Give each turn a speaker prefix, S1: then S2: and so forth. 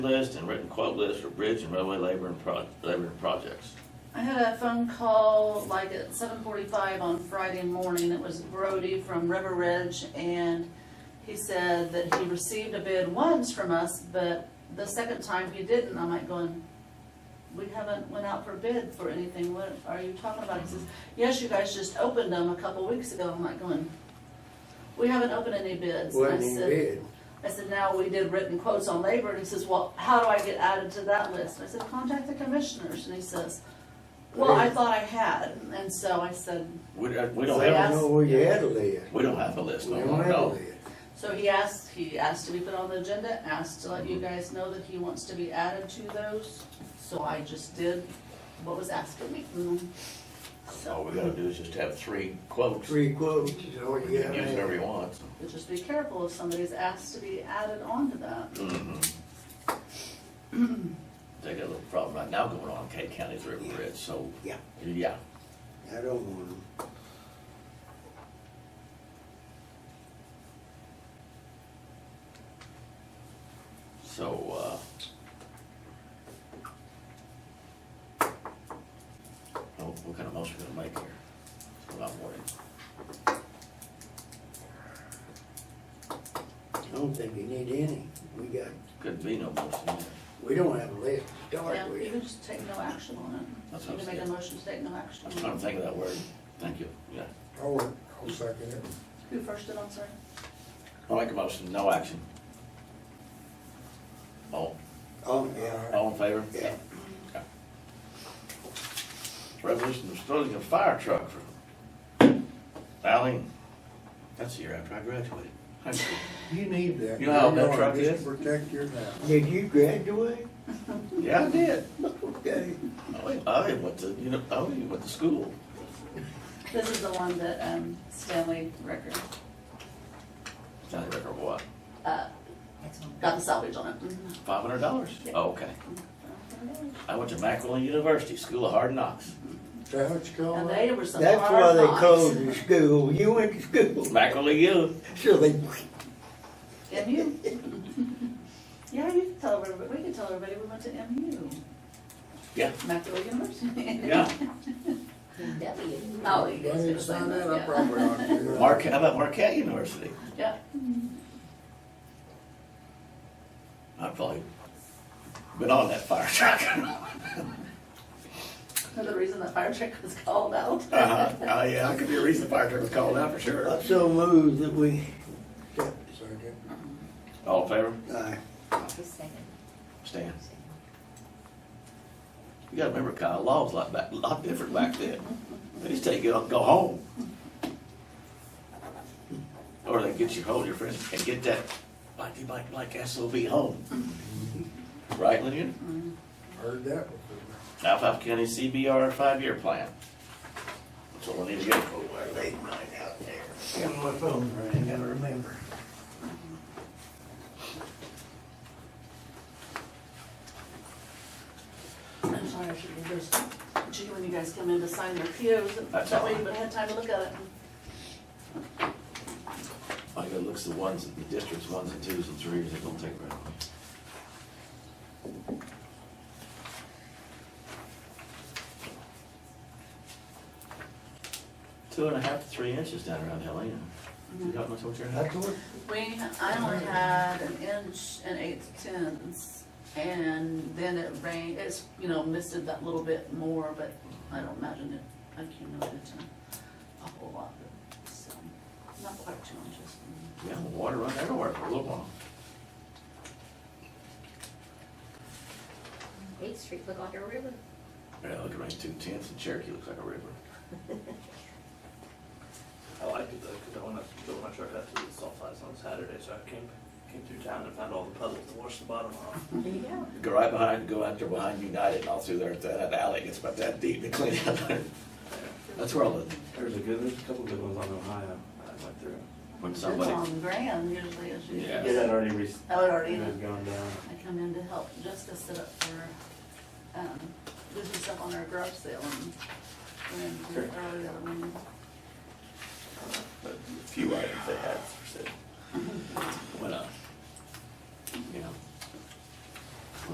S1: list and written quote list for bridge and railway labor and pro, labor and projects.
S2: I had a phone call like at seven forty-five on Friday morning, it was Brody from River Ridge, and he said that he received a bid once from us, but the second time he didn't, I'm like going, we haven't went out for bid for anything, what are you talking about? He says, yes, you guys just opened them a couple weeks ago, I'm like going, we haven't opened any bids. And I
S3: Wasn't even
S2: said-
S3: bid.
S2: I said, now we did written quotes on labor, and he says, well, how do I get added to that list? And I said, contact the commissioners, and he says, well, I thought I had, and so I said,
S1: We, uh, we
S3: I
S1: don't
S2: Yeah.
S1: have,
S3: don't know where you had to live.
S1: we don't have a list
S3: We
S1: no
S3: don't
S1: more,
S3: have to
S1: no.
S3: live.
S2: so he asked, he asked to be put on the agenda, asked to let
S1: Mm-hmm.
S2: you guys know that he wants to be added to those, so I just did what was asked of me. Mm.
S1: All
S2: So,
S1: we gotta do is just have three quotes. We
S3: Three quotes is all
S1: can
S3: you
S1: use
S3: got.
S1: whatever you want.
S2: but just be careful if somebody's asked to be added onto that.
S1: Mhm. They got a little problem right now going on in Kate County's River Bridge, so.
S3: Yeah.
S1: Yeah,
S3: I don't want them.
S1: so, uh. What, oh, what kind of motion we gonna make here? It's a lot more than-
S3: I don't think you need any. We got,
S1: Could be no motion either.
S3: we don't have a list to
S2: Yeah,
S3: start
S2: you
S3: with.
S2: can just take no action on it.
S1: That's
S2: You
S1: what
S2: can
S1: I'm
S2: make a
S1: saying.
S2: motion to take no action
S1: I
S2: on
S1: was
S2: it.
S1: trying to think of that word. Thank you, yeah.
S4: I'll, I'll second it.
S2: Who first did, I'm sorry?
S1: I'll make a motion, no action. All,
S3: Oh, yeah.
S1: all in favor?
S3: Yeah.
S1: Okay. Resolution installing a fire truck for Allen. That's the year after I graduated. high school.
S4: You need that.
S1: You know how that
S4: You're
S1: truck
S4: just
S1: is?
S4: to Protect your house.
S3: Did you graduate?
S1: Yeah, I did. Oh,
S3: Okay.
S1: I- I went to, you know, oh, I went to school.
S2: This is the one that um, Stanley Record
S1: County record what?
S2: uh, got the salvage on it.
S4: Mm-hmm.
S2: Mhm.
S1: Five hundred dollars?
S2: Yeah.
S1: Oh, okay. I went to Macquarie University, School of Hard Knocks.
S3: Is that what you call
S2: And
S3: it?
S2: they were some hard
S3: Oh, That's why they
S2: knocks.
S3: closed the school. You went to school.
S1: Macquarie U.
S3: So they,
S2: MU. Yeah, you can tell everybody, we can tell everybody we went to MU.
S1: Yeah.
S2: Macaulay University.
S1: Yeah.
S2: W. Oh, you
S4: If I
S2: guys
S4: need
S2: are
S4: to
S2: saying
S4: sign
S2: that,
S4: that, I
S2: yeah.
S4: probably ought to.
S1: Marquette, how about Marquette University?
S2: Yeah.
S1: I've probably been on that fire truck.
S2: Another reason that fire truck was called out.
S4: Uh-huh.
S1: Uh, yeah, I could be a reason the fire truck was called out for sure.
S3: I so moved that we,
S4: Second.
S1: All in favor?
S3: I,
S5: Just saying.
S1: Stan. You gotta remember, Kyle, law was a lot back, a lot different back then. They just tell you, go, go home. Or they get you, hold your friend and get that, like, you like, like SOB home. Right, Lynn?
S4: Heard that before.
S1: Alfalfa County CBR five-year plan. That's all I need to get. Oh, late night out there.
S3: got my phone running, gotta remember.
S2: I'm sorry, I should be just, gee, when you guys come in to sign your POs,
S1: That's
S2: that way
S1: all
S2: you would have had time to look at it.
S1: I gotta look at the ones, the districts, ones and twos and threes, it don't take very long. Two and a half to three inches down around Helena. You got much what you're having?
S4: That's what,
S2: We, I only had an inch and eight tenths, and then it rained, it's, you know, misted that little bit more, but I don't imagine it accumulated to a whole lot, but, so, not quite two inches.
S1: Yeah, the water run everywhere for a little while.
S5: Eighth Street look like a river.
S1: Yeah, look at range two tenths and Cherokee looks like a river.
S6: I liked it though, because I went up to build my truck out to the salt flats on Saturday, so I came, came through town and found all the puddles to wash the bottom off.
S5: There you go.
S1: Go right behind, go out there behind United and all through there, that that alley gets about that deep to clean out there. That's where I live.
S6: There's a good, there's a couple good ones on Ohio that I went through.
S1: When
S2: It's
S1: somebody,
S2: on Graham usually, is usually.
S1: Yeah.
S6: Yeah, that already re-
S2: I would already,
S6: had gone down.
S2: I come in to help Jessica set up for, um, do some stuff on her garage sale, and, uh, oh, and earlier the other one.
S1: but a few items they had for sale. Went up. uh, You know,